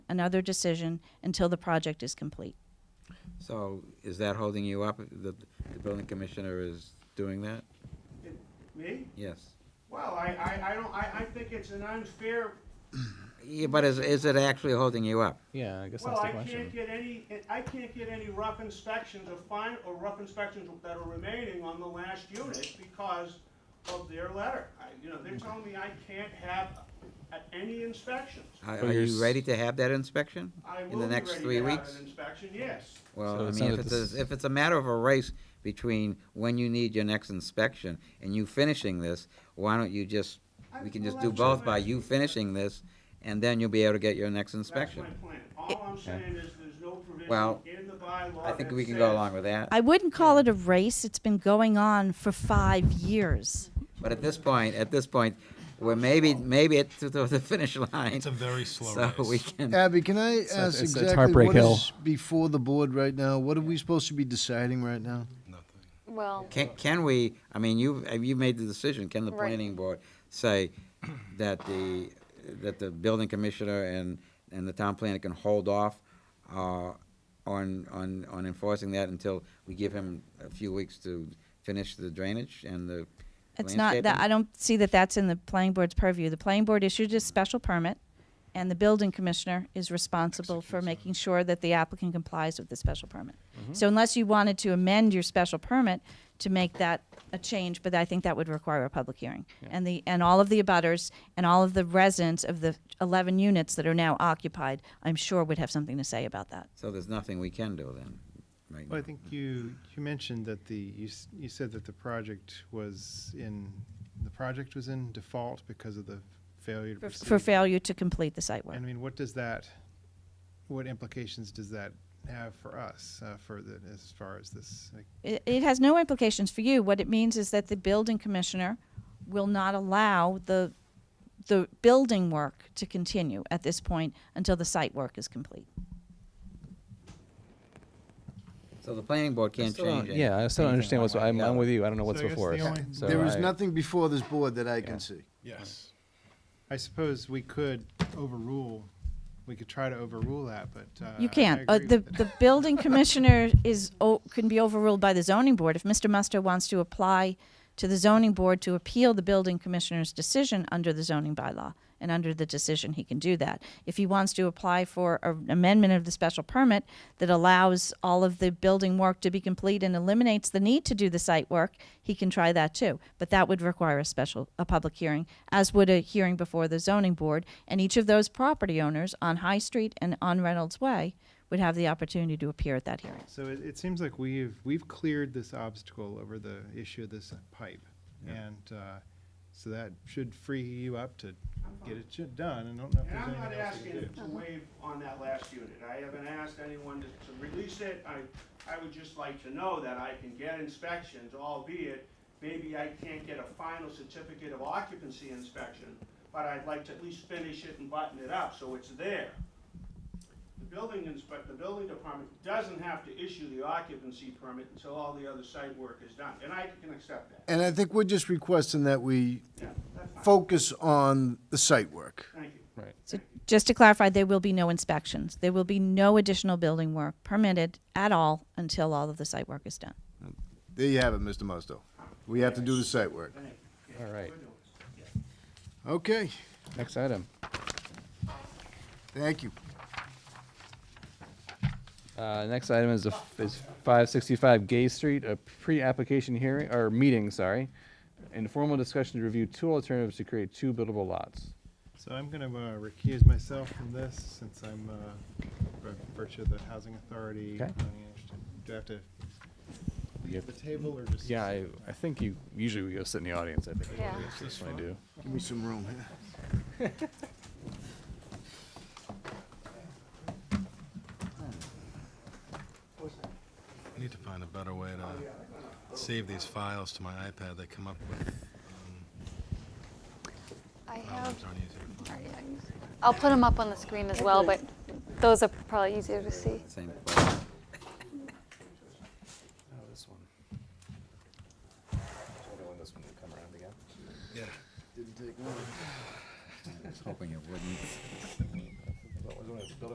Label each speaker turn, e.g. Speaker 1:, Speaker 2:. Speaker 1: another decision until the project is complete.
Speaker 2: So is that holding you up? The, the building commissioner is doing that?
Speaker 3: Me?
Speaker 2: Yes.
Speaker 3: Well, I, I, I don't, I, I think it's an unfair,
Speaker 2: Yeah, but is, is it actually holding you up?
Speaker 4: Yeah, I guess
Speaker 3: well,
Speaker 4: that's the
Speaker 3: I can't
Speaker 4: question.
Speaker 3: get any, I can't get any rough inspections or fine, or rough inspections that are remaining on the last unit because of their letter. I, you know, they're telling me I can't have uh, any inspections.
Speaker 2: Are,
Speaker 4: But
Speaker 2: are
Speaker 4: you're
Speaker 2: you
Speaker 4: s-
Speaker 2: ready to have that inspection?
Speaker 3: I
Speaker 2: In the
Speaker 3: will be ready
Speaker 2: next three
Speaker 3: to have
Speaker 2: weeks?
Speaker 3: an inspection, yes.
Speaker 4: So
Speaker 2: Well, I
Speaker 4: it's
Speaker 2: mean,
Speaker 4: not
Speaker 2: if
Speaker 4: that
Speaker 2: it's,
Speaker 4: this-
Speaker 2: a- if it's a matter of a race between when you need your next inspection and you finishing this, why don't you just, we can just do both by you finishing this, and then you'll be able to get your next inspection.
Speaker 3: That's my plan. All I'm saying is there's no
Speaker 2: Well,
Speaker 3: provision in the bylaw
Speaker 2: I think
Speaker 3: that
Speaker 2: we can
Speaker 3: says-
Speaker 2: go along with that.
Speaker 1: I wouldn't call it a race, it's been going on for five years.
Speaker 2: But at this point, at this point, we're maybe, maybe at the, the finish line.
Speaker 5: It's a very slow
Speaker 2: So
Speaker 5: race.
Speaker 2: we can,
Speaker 6: Abby, can I
Speaker 4: It's-
Speaker 6: ask
Speaker 4: it's- it's
Speaker 6: exactly
Speaker 4: Heartbreak
Speaker 6: what
Speaker 4: Hill.
Speaker 6: is before the board right now? What are we supposed to be deciding right now?
Speaker 5: Nothing.
Speaker 7: Well,
Speaker 2: can, can we, I mean, you, you made the decision, can the
Speaker 7: Right.
Speaker 2: planning board say that the, that the building commissioner and, and the town planner can hold off, uh, on, on, on enforcing that until we give him a few weeks to finish the drainage and the
Speaker 1: It's not that, I
Speaker 2: landscaping?
Speaker 1: don't see that that's in the planning board's purview. The planning board issued a special permit, and the building commissioner is responsible for making sure that the applicant complies with the special permit. So unless you wanted to amend your special permit to make that a change, but I think that would require a public hearing. And the, and all of the abutters and all of the residents of the 11 units that are now occupied, I'm sure would have something to say about that.
Speaker 2: So there's nothing we can do then, right
Speaker 8: Well, I
Speaker 2: now.
Speaker 8: think you, you mentioned that the, you, s- you said that the project was in, the project was in default because of the failure to
Speaker 1: For-
Speaker 8: proceed.
Speaker 1: For failure to complete the site work.
Speaker 8: I mean, what does that, what implications does that have for us, uh, for the, as far as this? like,
Speaker 1: it, it has no implications for you. What it means is that the building commissioner will not allow the the building work to continue at this point until the site work is complete.
Speaker 2: So the planning board can't
Speaker 4: Still don't-
Speaker 2: change it.
Speaker 4: Yeah, I still don't understand what's, I'm, I'm with you. I don't know what's
Speaker 8: So I guess
Speaker 4: before
Speaker 8: the
Speaker 4: us.
Speaker 8: only-
Speaker 4: So
Speaker 6: There is
Speaker 4: I-
Speaker 6: nothing before this board that I can see.
Speaker 5: Yes.
Speaker 8: I suppose we could overrule, we could try to overrule that, but. uh,
Speaker 1: you
Speaker 8: I- I
Speaker 1: can't. Uh,
Speaker 8: agree
Speaker 1: the
Speaker 8: with it.
Speaker 1: the building commissioner is o- can be overruled by the zoning board if Mr. Musto wants to apply to the zoning board to appeal the building commissioner's decision under the zoning bylaw and under the decision he can do that. If he wants to apply for a- an amendment of the special permit that allows all of the building work to be complete and eliminates the need to do the site work, he can try that too. But that would require a special a public hearing, as would a hearing before the zoning board, and each of those property owners on High Street and on Reynolds Way would have the opportunity to appear at that hearing.
Speaker 8: So it, it seems like we've, we've cleared this obstacle over the issue of this pipe. And, uh, so that should free you up to get it shit done, and I don't know if
Speaker 3: And
Speaker 8: there's
Speaker 3: I'm not
Speaker 8: anything else we
Speaker 3: asking
Speaker 8: can do.
Speaker 3: to waive on that last unit. I haven't asked anyone to, to release it. I, I would just like to know that I can get inspections, albeit maybe I can't get a final certificate of occupancy inspection, but I'd like to at least finish it and button it up, so it's there. The building inspect, the building department doesn't have to issue the occupancy permit until all the other site work is done, and I can accept that.
Speaker 6: And I think we're just requesting that we
Speaker 3: Yeah, that's fine.
Speaker 6: focus on the site work.
Speaker 3: Thank you.
Speaker 1: So just to clarify, there will be no inspections. There will be no additional building work permitted at all until all of the site work is done.
Speaker 6: There you have it, Mr. Musto. We have to do the site work.
Speaker 4: All right,
Speaker 6: Okay,
Speaker 4: next item.
Speaker 6: thank you.
Speaker 4: Uh, next item is, a- is 565 Gay Street, a pre-application hearing, or meeting, sorry. Informal discussion to review two alternatives to create two buildable lots.
Speaker 8: So I'm gonna uh, recuse myself from this since I'm, uh, by virtue of the housing authority.
Speaker 4: Okay.
Speaker 8: planning action. Do I have to
Speaker 4: Yep.
Speaker 8: leave the table or just?
Speaker 4: Yeah, I, I think you, usually we go sit in the audience, I think.
Speaker 7: Yeah.
Speaker 4: That's what I do.
Speaker 6: Give me some room here.
Speaker 5: I need to find a better way
Speaker 3: Oh,
Speaker 5: to save these files to my iPad. They come up with um,
Speaker 7: I have,
Speaker 5: problems aren't easy to find.
Speaker 7: I'll put them up on the screen as well, but those are probably easier to see.
Speaker 2: Same question.
Speaker 4: Oh, this one. when this one will come around again.
Speaker 5: Yeah.
Speaker 2: I was hoping it wouldn't.